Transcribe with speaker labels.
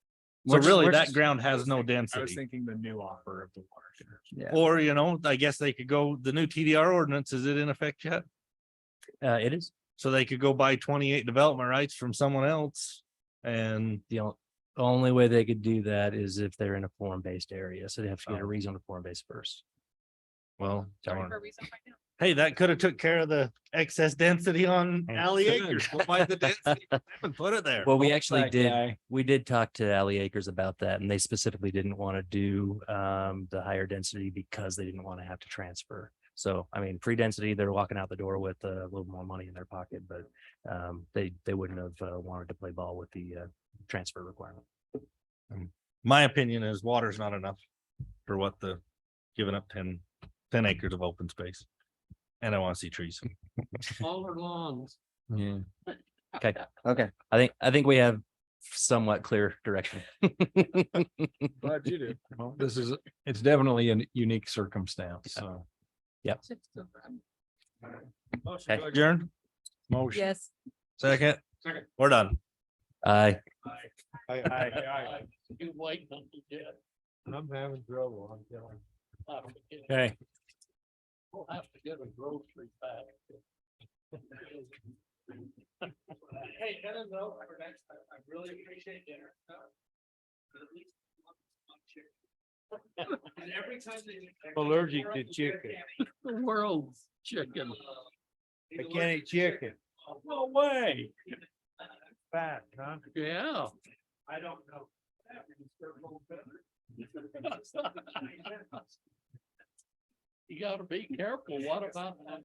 Speaker 1: So
Speaker 2: Which-
Speaker 1: really,
Speaker 2: which
Speaker 1: that
Speaker 2: is-
Speaker 1: ground
Speaker 2: I
Speaker 1: has
Speaker 2: was
Speaker 1: no
Speaker 2: thinking- I was
Speaker 1: density.
Speaker 2: thinking the new offer of the water. share.
Speaker 3: Yeah,
Speaker 1: Or, you know, I guess they could go, the new TDR ordinance, is it in effect yet?
Speaker 3: uh, it is,
Speaker 1: So they could go buy twenty-eight development rights from someone else and
Speaker 3: the on- only way they could do that is if they're in a form-based area, so they have to get a
Speaker 1: Oh.
Speaker 3: reason to form-based first.
Speaker 1: Well,
Speaker 3: Sorry.
Speaker 1: darn. hey, that could have took care of the excess density on
Speaker 3: Mm.
Speaker 1: alley acres. Go buy the density and Put it there.
Speaker 3: Well, we actually
Speaker 2: That
Speaker 3: did,
Speaker 2: guy.
Speaker 3: we did talk to Alley Acres about that, and they specifically didn't want to do um the higher density because they didn't want to have to transfer. So I mean, free density, they're walking out the door with uh, a little more money in their pocket, but um they they wouldn't have uh, wanted to play ball with the uh transfer requirement.
Speaker 1: My opinion is water's not enough for what the, giving up 10 10 acres of open space. And I want to see trees.
Speaker 4: Smaller lawns.
Speaker 3: Yeah.
Speaker 4: Okay.
Speaker 3: I think, I think we have somewhat clear direction.
Speaker 2: Glad you did. Well, this is, it's definitely a unique circumstance, so.
Speaker 3: to Okay.
Speaker 1: Adjourn,
Speaker 2: Motion.
Speaker 5: Yes.
Speaker 1: second,
Speaker 4: Second.
Speaker 1: we're done.
Speaker 3: I,
Speaker 4: You wait until you get.
Speaker 2: I'm having trouble, I'm telling.
Speaker 4: I'll have to get-
Speaker 2: Okay.
Speaker 4: I'll have to get a grocery bag. Hey, that is over for next time. I really appreciate dinner. uh, but at least one- one chicken. And every time they-
Speaker 2: Allergic to chicken.
Speaker 4: The world's chicken.
Speaker 2: I can't eat chicken.
Speaker 4: No way.
Speaker 2: Fat, huh?
Speaker 4: Yeah.
Speaker 2: I don't know.
Speaker 4: You gotta be careful. What about that?